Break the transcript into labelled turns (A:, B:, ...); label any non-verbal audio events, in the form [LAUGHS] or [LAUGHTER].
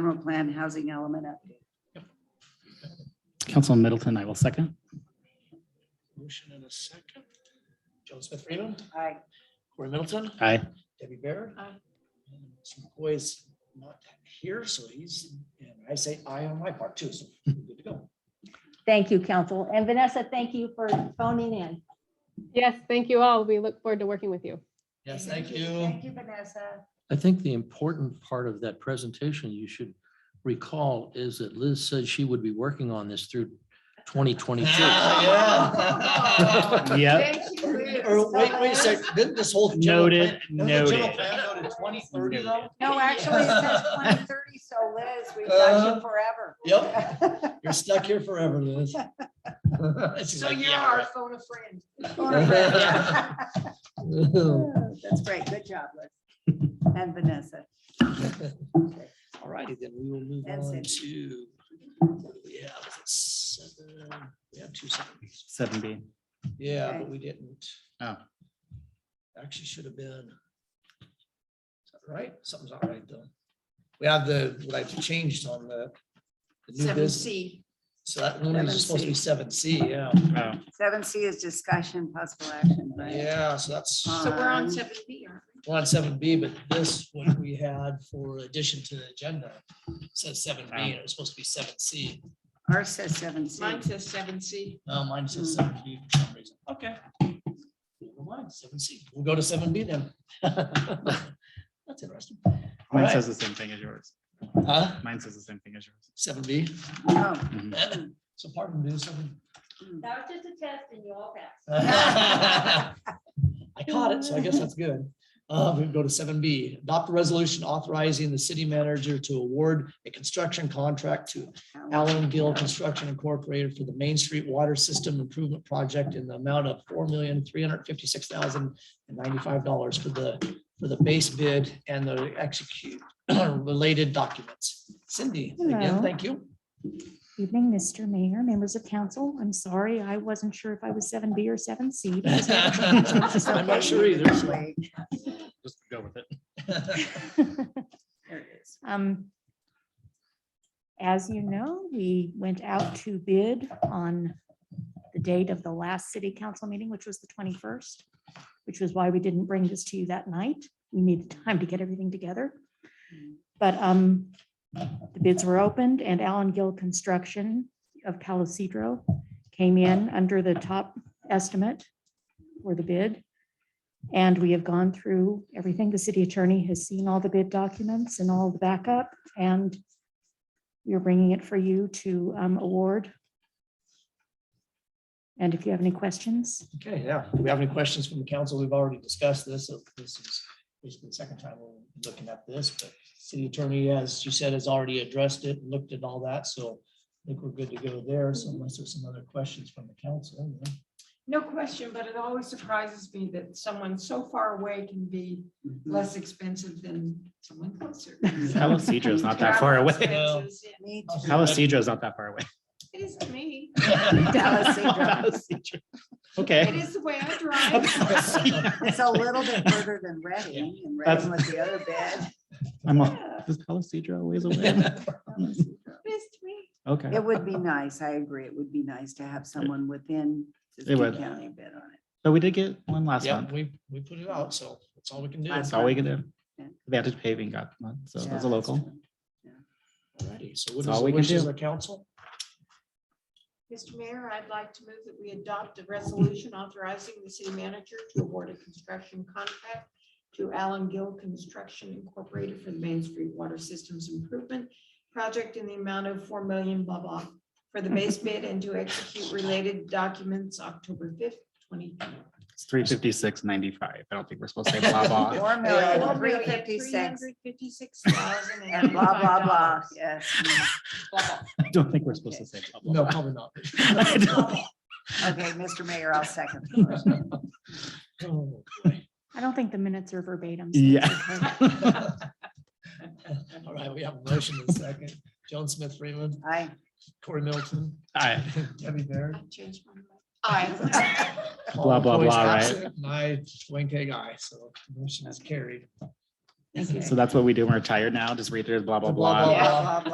A: general plan housing element update.
B: Councilman Middleton, I will second.
C: Motion and a second. Joe Smith Freeman,
A: Aye.
C: Corey Middleton,
B: Aye.
C: Debbie Baird.
D: Aye.
C: And Mr. McCoy's not here, so he's, and I say aye on my part too, so we're good to go.
E: Thank you, council. And Vanessa, thank you for phoning in.
D: Yes, thank you all. We look forward to working with you.
C: Yes, thank
A: Thank
C: you.
A: you, Vanessa.
F: I think the important part of that presentation you should recall is that Liz said she would be working on this through twenty twenty-two.
C: Ah, yeah.
B: Yep.
A: Thank you.
C: [LAUGHS] Or wait, wait a sec, didn't this whole. general
B: Noted,
C: plan- doesn't the general
B: noted.
C: plan go to Twenty thirty though?
A: No, actually, it
C: [LAUGHS]
A: says twenty thirty, so Liz, we've got
C: Uh-huh.
A: you forever. Yep.
C: You're stuck here forever,
A: [LAUGHS]
C: Liz. She's
A: So
C: like,
A: you're
C: "Yeah,
A: our
C: right."
A: phone a
C: [LAUGHS]
A: friend. Phone a friend. [LAUGHS] That's great. Good job, Liz. And Vanessa.
C: All righty, then we will move
A: That's
C: on
A: it.
C: to, yeah, was it seven, we have two seconds.
B: Seven B.
C: Yeah,
A: Okay.
C: but we didn't,
B: Oh,
C: actually should have been. Is that Right, something's all right though. We have the, what I've changed on the. the new
A: Seven
C: business.
A: C.
C: So that one is supposed to be seven C, yeah,
B: oh,
A: Seven C is discussion, possible action, right? Um.
C: yeah, so that's.
A: So we're on
G: seven B, aren't we?
C: We're on seven B, but this one we had for addition to the agenda says seven B, and it was supposed to be seven C.
A: Ours says seven C.
G: Mine says seven C.
C: Oh, mine says seven B for some reason. Okay. Never mind, seven C. We'll go to seven B then. [LAUGHS] That's interesting.
B: mine
C: Alright.
B: says the same thing as yours.
C: Huh?
B: Mine says the same thing as yours.
C: Seven B.
A: Oh,
B: Mhm.
C: So pardon me, seven.
E: That was just a test and you all passed.
C: Uh, I caught it, so I guess that's good. Uh, we go to seven B, adopt a resolution authorizing the city manager to award a construction contract to
A: Hmm.
C: Allen Gill Construction Incorporated for the Main Street Water System Improvement Project in the amount of four million, three hundred fifty-six thousand and ninety-five dollars for the, for the base bid and the execute [CLEARS THROAT] related documents. Cindy, again,
H: Hello.
C: thank you.
H: Evening, Mr. Mayor, members of council. I'm sorry, I wasn't sure if I was seven B or seven C.
C: [LAUGHS] I'm not sure either. so-
A: Wait,
B: Just go with it.
A: There it is.
H: Um, As you know, we went out to bid on the date of the last city council meeting, which was the twenty-first, which was why we didn't bring this to you that night. We needed time to get everything together. But um, the bids were opened and Allen Gill Construction of Calisidro came in under the top estimate for the bid. And we have gone through everything. The city attorney has seen all the bid documents and all the backup and we are bringing it for you to um, award. And if you have any questions,
C: Okay, yeah. Do we have any questions from the council? We've already discussed this. so This is basically the second time we're looking at this, but city attorney, as you said, has already addressed it, looked at all that, so I think we're good to go there. So unless there's some other questions from the council. then-
G: No question, but it always surprises me that someone so far away can be less expensive than someone closer.
B: Palisadro is not that far
G: Travel
B: away.
G: [LAUGHS] expenses, yeah.
A: Me
C: I'll see you later.
B: Palisadro is not that far away.
G: It is to me.
A: Palisadro.
B: Palisadro.
G: It
B: Okay.
G: is the way I
B: [LAUGHS]
G: drive.
B: Palisadro.
A: It's a little bit further than Reading, and
B: That's-
A: Reading was the other bed.
B: I'm on,
G: Yeah,
B: is Palisadro a ways away?
G: It is to me.
B: Okay.
A: It would be nice, I agree, it would be nice to have someone within
B: It
A: Siskiyou
B: would.
A: County bid on it.
B: But we did get one last
C: Yeah,
B: month.
C: we, we put it out, so that's all we can do.
A: Last
B: That's all we can
A: Yeah.
B: do. Vantage Paving got one, so
A: Yeah,
B: it's
A: that's
B: a local.
A: true.
C: Alrighty, so what
B: That's all
C: is the
B: we can
C: wishes of
B: do.
C: the council?
G: Mr. Mayor, I'd like to move that we adopt a resolution authorizing the city manager to award a construction contract to Allen Gill Construction Incorporated for the Main Street Water Systems Improvement Project in the amount of four million blah blah for the base bid and to execute related documents October fifth, twenty.
B: It's three fifty-six ninety-five. I don't think we're supposed to say
A: [LAUGHS]
B: blah, blah.
A: Four million, three fifty-six, and blah, blah, blah, yes.
B: I don't think we're supposed to say blah,
C: [LAUGHS] No,
B: blah, [LAUGHS]
C: probably not.
B: blah. I don't think-
A: Okay, Mr. Mayor, I'll second. the motion.
B: [LAUGHS]
C: Oh, boy.
H: I don't think the minutes are verbatim. so it's
B: Yeah.
H: okay.
C: All right, we have a motion in a second. John Smith Freeman,
A: Aye.
C: Corey Middleton,
B: Aye.
C: Debbie Baird.
G: I.
C: All
B: Blah, blah,
C: employees
B: blah, right?
C: absent, and I, Wayne K. guy, so motion is carried.
H: Thank you.
B: So that's what we do. when We're tired now. Just read through blah, blah,
C: Blah,
B: blah.
C: blah,
G: Yeah.